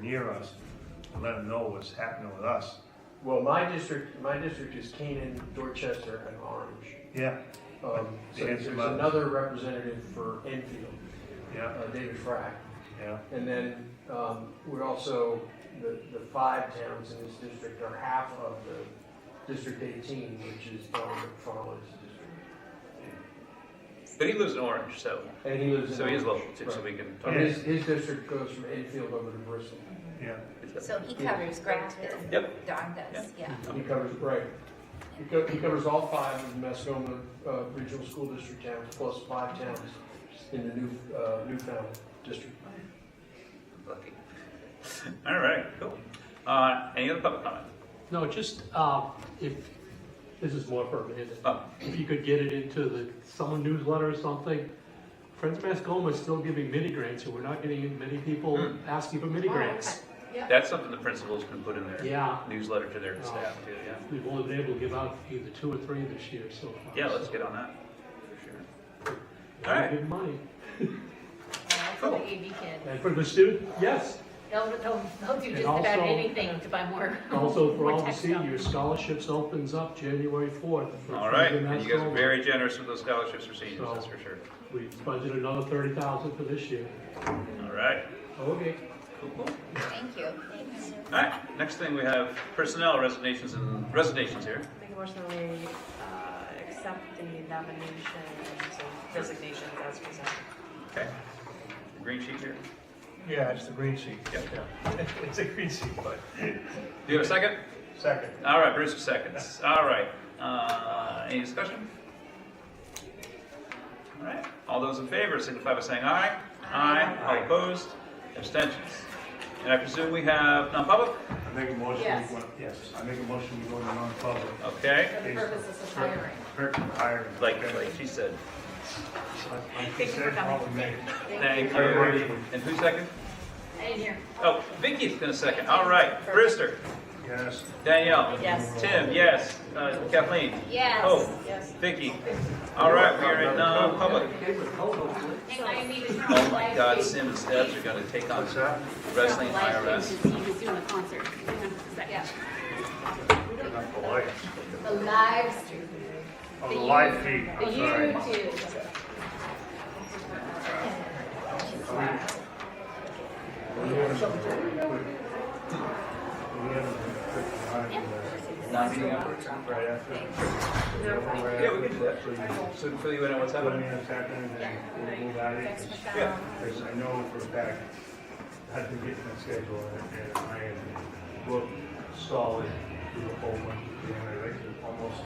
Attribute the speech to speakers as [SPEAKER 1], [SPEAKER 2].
[SPEAKER 1] near us and let them know what's happening with us.
[SPEAKER 2] Well, my district, my district is Canaan, Dorchester, and Orange.
[SPEAKER 1] Yeah,
[SPEAKER 2] Um, So
[SPEAKER 1] Yes,
[SPEAKER 2] there's
[SPEAKER 1] ma'am.
[SPEAKER 2] another representative for Enfield,
[SPEAKER 1] yeah,
[SPEAKER 2] uh, David Frack.
[SPEAKER 1] yeah,
[SPEAKER 2] And then um, we're also, the, the five towns in this district are half of the District 18, which is Don McFarland's district.
[SPEAKER 3] But he lives in Orange, so
[SPEAKER 2] And he lives in.
[SPEAKER 3] so he is
[SPEAKER 2] Orange.
[SPEAKER 3] local too. So
[SPEAKER 2] Right.
[SPEAKER 3] we can talk.
[SPEAKER 2] And his, his district goes from Enfield over to Bristol.
[SPEAKER 1] yeah.
[SPEAKER 4] So he covers Grafton.
[SPEAKER 3] Yep.
[SPEAKER 4] Don does, yeah.
[SPEAKER 2] He covers, right. He co- he covers all five of the Mascoma uh, Regional School District towns, plus five towns in the new, uh, Newfound district.
[SPEAKER 3] Lucky. All right. Cool. Uh, any other public comment?
[SPEAKER 5] No, just, um, if, this is more for Amanda,
[SPEAKER 3] Oh,
[SPEAKER 5] if you could get it into the summer newsletter or something. Friends of Mascoma is still giving mini grants, and we're not getting many people
[SPEAKER 3] Hmm.
[SPEAKER 5] asking for mini grants.
[SPEAKER 3] that's something the principals can put in their
[SPEAKER 5] Yeah.
[SPEAKER 3] newsletter to their staff too. Yeah.
[SPEAKER 5] We've only been able to give out either two or three this year so far.
[SPEAKER 3] Yeah. Let's
[SPEAKER 5] so
[SPEAKER 3] get on that. For sure.
[SPEAKER 5] we're
[SPEAKER 3] all right.
[SPEAKER 5] Good money.
[SPEAKER 6] For the AV kid.
[SPEAKER 5] And for the student, yes,
[SPEAKER 6] They'll, they'll, they'll do
[SPEAKER 5] And
[SPEAKER 6] just about
[SPEAKER 5] also-
[SPEAKER 6] anything to buy more.
[SPEAKER 5] also for
[SPEAKER 6] more
[SPEAKER 5] all the
[SPEAKER 6] tech stuff.
[SPEAKER 5] seniors, scholarships opens up January fourth. for
[SPEAKER 3] All right.
[SPEAKER 5] Friends of
[SPEAKER 3] And you guys are
[SPEAKER 5] Mascoma.
[SPEAKER 3] very generous with those scholarships for seniors.
[SPEAKER 5] So-
[SPEAKER 3] That's for sure.
[SPEAKER 5] We budgeted another thirty thousand for this year.
[SPEAKER 3] All right.
[SPEAKER 5] Okay.
[SPEAKER 3] Cool. Cool.
[SPEAKER 4] Thank you.
[SPEAKER 3] All right. Next thing we have personnel resignations and resignations here.
[SPEAKER 7] Make a motion that we uh, accept the nominations and resignations as presented.
[SPEAKER 3] Okay. Green sheet here.
[SPEAKER 1] Yeah, it's the green sheet.
[SPEAKER 3] Yeah.
[SPEAKER 1] It's a green sheet, but.
[SPEAKER 3] Do you have a second?
[SPEAKER 1] Second.
[SPEAKER 3] All right, Bruce, seconds. All right. Uh, any discussion? All right. All those in favor signify by saying aye. Aye. All opposed? Abstentions. And I presume we have non-public?
[SPEAKER 1] I make a motion,
[SPEAKER 6] Yes.
[SPEAKER 1] we go, yes, I make a motion, we go to non-public.
[SPEAKER 3] Okay.
[SPEAKER 6] For the purposes of hiring.
[SPEAKER 1] Per- per- hiring.
[SPEAKER 3] Like, like she said.
[SPEAKER 1] Thank
[SPEAKER 7] you for coming.
[SPEAKER 3] Thank you.
[SPEAKER 1] Very much.
[SPEAKER 3] And who's second?
[SPEAKER 6] I didn't hear.
[SPEAKER 3] Oh, Vicky's gonna second. All right. Brewster,
[SPEAKER 1] Yes.
[SPEAKER 3] Danielle.
[SPEAKER 7] Yes.
[SPEAKER 3] Tim, yes. Uh, Kathleen.
[SPEAKER 4] Yes.
[SPEAKER 3] Oh,
[SPEAKER 7] Yes.
[SPEAKER 3] Vicky. All right, we are in non-public.
[SPEAKER 6] And I need to
[SPEAKER 3] Oh my God, Sim and Steps are gonna take on
[SPEAKER 1] What's that?
[SPEAKER 3] wrestling IRS.
[SPEAKER 8] He was doing a concert. Hang on a second.
[SPEAKER 6] Yeah,
[SPEAKER 1] Not the light.
[SPEAKER 6] the live stream.
[SPEAKER 1] Oh, the live feed,
[SPEAKER 6] The
[SPEAKER 1] I'm sorry.
[SPEAKER 6] YouTube.
[SPEAKER 1] We haven't put the hiring there.
[SPEAKER 3] Not meeting upwards.
[SPEAKER 1] Right after.
[SPEAKER 3] Yeah, we can do that. So to fill you in on what's
[SPEAKER 1] Put me
[SPEAKER 3] happening.
[SPEAKER 1] in a second and we'll move out of it.
[SPEAKER 3] Yeah.
[SPEAKER 1] Because I know for a fact, I've been getting my schedule and- and I am booked solid through the whole month. And I like to almost